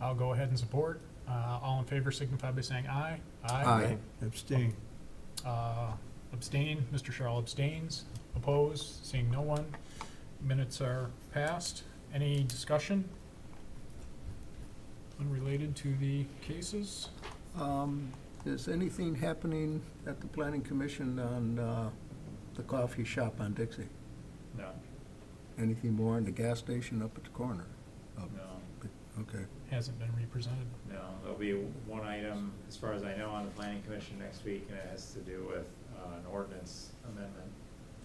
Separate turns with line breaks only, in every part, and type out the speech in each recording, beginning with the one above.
I'll go ahead and support. Uh, all in favor signify by saying aye.
Aye.
Abstain.
Uh, abstain, Mr. Charles abstains. Opposed, seeing no one. Minutes are passed. Any discussion? Unrelated to the cases?
Um, Is anything happening at the planning commission on uh, the coffee shop on Dixie?
No,
Anything more on the gas station up at the corner? Up-
No,
Okay,
Hasn't been represented.
no, there'll be one item, as far as I know, on the planning commission next week, and it has to do with uh, an ordinance amendment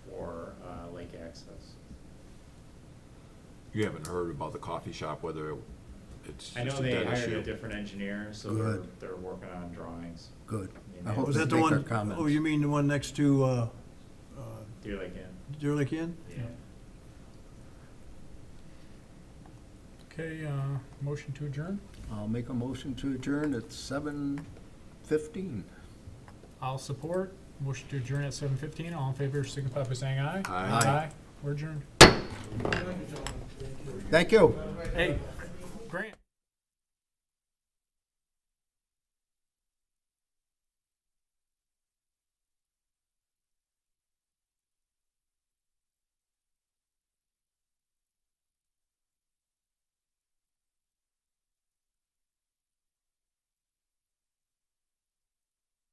for uh, lake access.
You haven't heard about the coffee shop, whether it's
I know
just a
they
dead
hired a
issue.
different engineer, so they're,
Good.
they're working on drawings,
good. I
Yeah.
hope
Was
they
that the
make their
one,
comments.
oh, you mean the one next to, uh, uh,
Deer Lake Inn,
Deer Lake Inn?
yeah.
Okay, uh, motion to adjourn?
I'll make a motion to adjourn at seven fifteen.
I'll support. Motion to adjourn at seven fifteen. All in favor signify by saying aye.
Aye.
We're adjourned.
Thank you.
Hey,